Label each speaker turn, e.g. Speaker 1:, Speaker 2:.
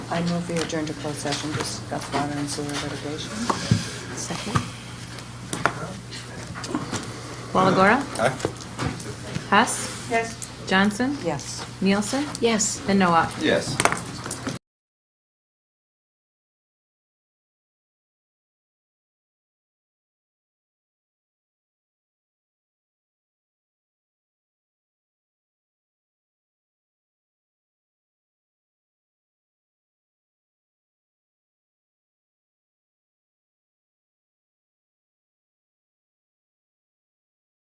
Speaker 1: I move we adjourn to closed session, to discuss water and sewer litigation.
Speaker 2: Second. Walagora?
Speaker 3: Aye.
Speaker 2: Hess?
Speaker 1: Yes.
Speaker 2: Johnson?
Speaker 1: Yes.
Speaker 2: Nielsen?
Speaker 4: Yes.
Speaker 2: And Noah?
Speaker 3: Yes.